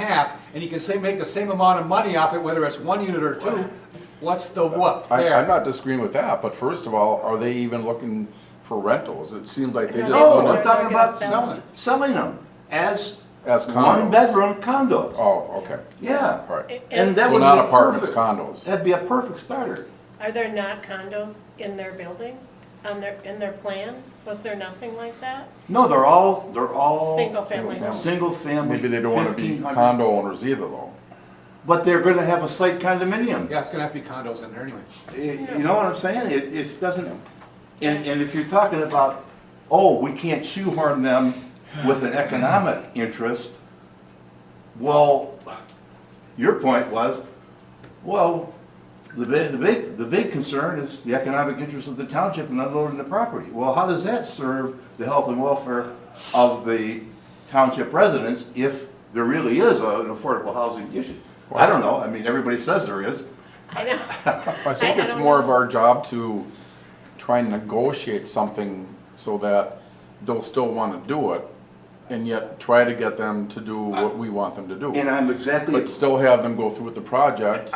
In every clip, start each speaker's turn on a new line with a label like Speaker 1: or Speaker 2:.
Speaker 1: half, and you can say, make the same amount of money off it, whether it's one unit or two, what's the what
Speaker 2: I,
Speaker 1: there?
Speaker 2: I'm not disagreeing with that, but first of all, are they even looking for rentals? It seems like they just.
Speaker 3: No,
Speaker 2: wanna-
Speaker 3: Oh, I'm talking about
Speaker 1: Selling it.
Speaker 3: selling, selling them as
Speaker 2: As condos.
Speaker 3: one-bedroom condos.
Speaker 2: Oh, okay,
Speaker 3: Yeah.
Speaker 2: all right.
Speaker 3: And that
Speaker 2: So
Speaker 3: would be
Speaker 2: not apartments,
Speaker 3: perfect.
Speaker 2: condos.
Speaker 3: That'd be a perfect starter.
Speaker 4: Are there not condos in their buildings, on their, in their plan? Was there nothing like that?
Speaker 3: No, they're all, they're all.
Speaker 4: Single family
Speaker 2: single
Speaker 4: homes?
Speaker 3: Single family,
Speaker 2: Maybe they don't wanna be
Speaker 3: 1,500.
Speaker 2: condo owners either though.
Speaker 3: But they're gonna have a site condominium.
Speaker 1: Yeah, it's gonna have to be condos in there anyway.
Speaker 3: You you know what I'm saying? It, it doesn't, and, and if you're talking about, oh, we can't shoehorn them with an economic interest, well, your point was, well, the big, the big, the big concern is the economic interest of the township in unloading the property. Well, how does that serve the health and welfare of the township residents if there really is a- an affordable housing issue? I don't know, I mean, everybody says there is.
Speaker 4: I know,
Speaker 2: I think
Speaker 4: I
Speaker 2: it's
Speaker 4: don't
Speaker 2: more
Speaker 4: know.
Speaker 2: of our job to try and negotiate something so that they'll still wanna do it and yet try to get them to do what we want them to
Speaker 3: And
Speaker 2: do.
Speaker 3: I'm exactly.
Speaker 2: But still have them go through with the project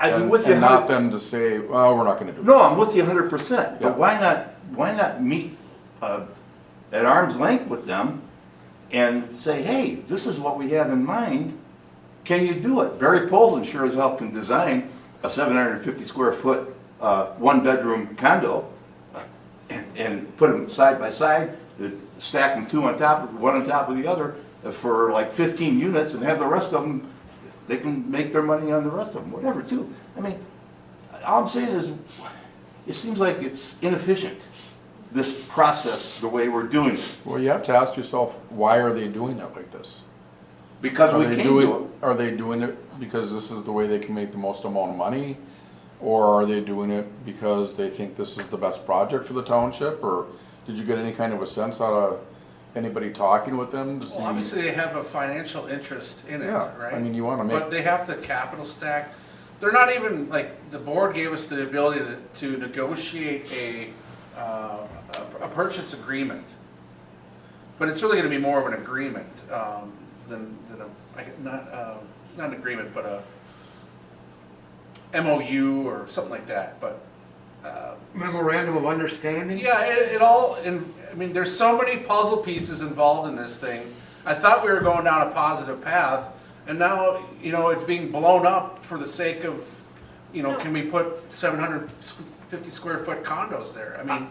Speaker 3: I'm
Speaker 2: and
Speaker 3: with you.
Speaker 2: and not
Speaker 3: 100
Speaker 2: them to say, well, we're not gonna do it.
Speaker 3: No, I'm with you hundred percent,
Speaker 2: Yeah.
Speaker 3: but why not, why not meet, uh, at arm's length with them and say, hey, this is what we have in mind, can you do it? Barry Polson sure as hell can design a seven hundred and fifty square foot, uh, one-bedroom condo uh, and, and put them side by side, uh, stack them two on top, of one on top of the other uh, for like fifteen units and have the rest of them, they can make their money on the rest of them, whatever, too. I mean, all I'm saying is, it seems like it's inefficient, this process, the way we're doing it,
Speaker 2: Well, you have to ask yourself, why are they doing it like this?
Speaker 3: because
Speaker 2: Are
Speaker 3: we
Speaker 2: they
Speaker 3: can
Speaker 2: doing-
Speaker 3: do
Speaker 2: Are they doing it because this is the way they can make the most amount of money? Or are they doing it because they think this is the best project for the township? Or did you get any kind of a sense out of anybody talking with them to see?
Speaker 5: Well, obviously, they have a financial interest in it,
Speaker 2: Yeah,
Speaker 5: right?
Speaker 2: I mean, you wanna make-
Speaker 5: But they have the capital stack. They're not even, like, the board gave us the ability to- to negotiate a, uh, a a purchase agreement. But it's really gonna be more of an agreement um, than, than a, I- not, uh, not an agreement, but a MOU or something like that, but
Speaker 6: Memorandum of understanding?
Speaker 5: Yeah, it, it all, and, I mean, there's so many puzzle pieces involved in this thing. I thought we were going down a positive path, and now, you know, it's being blown up for the sake of, you know, can we put seven hundred fifty square foot condos there? I mean,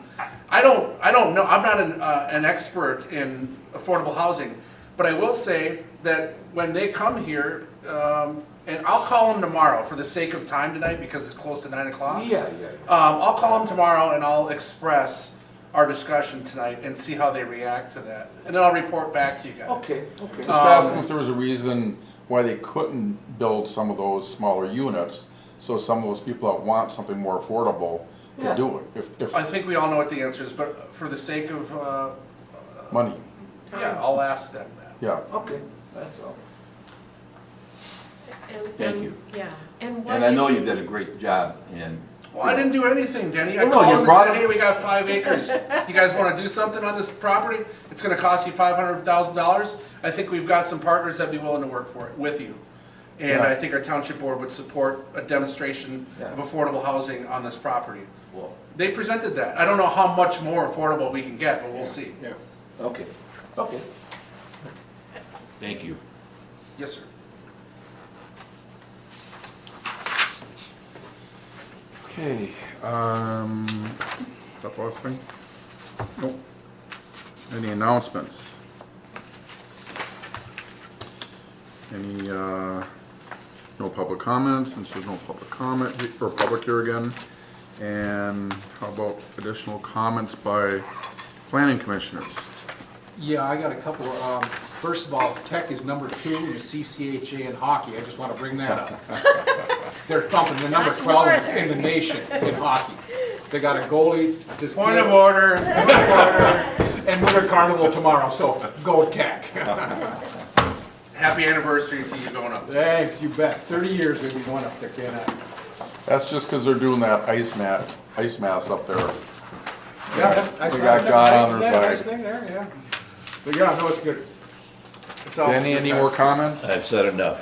Speaker 5: I don't, I don't know, I'm not an, uh, an expert in affordable housing, but I will say that when they come here, um, and I'll call them tomorrow for the sake of time tonight, because it's close to nine o'clock.
Speaker 3: it. Oh, Yeah, yeah.
Speaker 5: Um, I'll call them tomorrow and I'll express our discussion tonight and see how they react to that. And then I'll report back to you guys.
Speaker 3: Okay, okay.
Speaker 2: Just
Speaker 5: Um,
Speaker 2: ask them if there was a reason why they couldn't build some of those smaller units, so some of those people that want something more affordable
Speaker 3: Yeah.
Speaker 2: could do it, if,
Speaker 5: I
Speaker 2: if
Speaker 5: think we all know what the answer is, but for the sake of, uh,
Speaker 2: money,
Speaker 5: yeah, I'll ask them that.
Speaker 2: yeah.
Speaker 3: Okay, that's all.
Speaker 4: and,
Speaker 3: Thank
Speaker 4: and- um,
Speaker 3: you.
Speaker 4: yeah, and what
Speaker 7: And I know
Speaker 4: is,
Speaker 7: you did a great job in,
Speaker 5: Well, I didn't do anything, Denny. I
Speaker 3: Well, no,
Speaker 5: called
Speaker 3: you
Speaker 5: them
Speaker 3: brought
Speaker 5: and said,
Speaker 3: it-
Speaker 5: hey, we got five acres. You guys wanna do something on this property? It's gonna cost you five hundred thousand dollars. I think we've got some partners that'd be willing to work for it, with you. And
Speaker 2: Yeah.
Speaker 5: I think our township board would support a demonstration of affordable housing on this property.
Speaker 7: well,
Speaker 5: They presented that. I don't know how much more affordable we can get, but we'll see.
Speaker 1: Yeah.
Speaker 3: Okay, okay.
Speaker 7: thank you.
Speaker 5: Yes, sir.
Speaker 2: Okay, um, that last thing? Nope. Any announcements? Any, uh, no public comments, since there's no public comment, he- or public here again? And how about additional comments by planning commissioners?
Speaker 1: Yeah, I got a couple, um, first of all, tech is number two in the CCHA in hockey, I just wanna bring that up. They're thumping, they're number twelve in- in the nation in hockey. They got a goalie, this.
Speaker 5: Point of order.
Speaker 1: And Winter Carnival tomorrow, so go tech.
Speaker 5: Happy anniversary to you going up.
Speaker 1: Thanks, you bet, thirty years we've been going up there, can't I?
Speaker 2: That's just 'cause they're doing that ice mat, ice mass up there.
Speaker 1: Yeah, I
Speaker 2: We
Speaker 1: saw
Speaker 2: got
Speaker 1: that.
Speaker 2: God on their
Speaker 1: Nice
Speaker 2: side.
Speaker 1: thing there, yeah. But yeah, no, it's good.
Speaker 8: So-
Speaker 9: Danny, any more comments?
Speaker 2: I've said enough.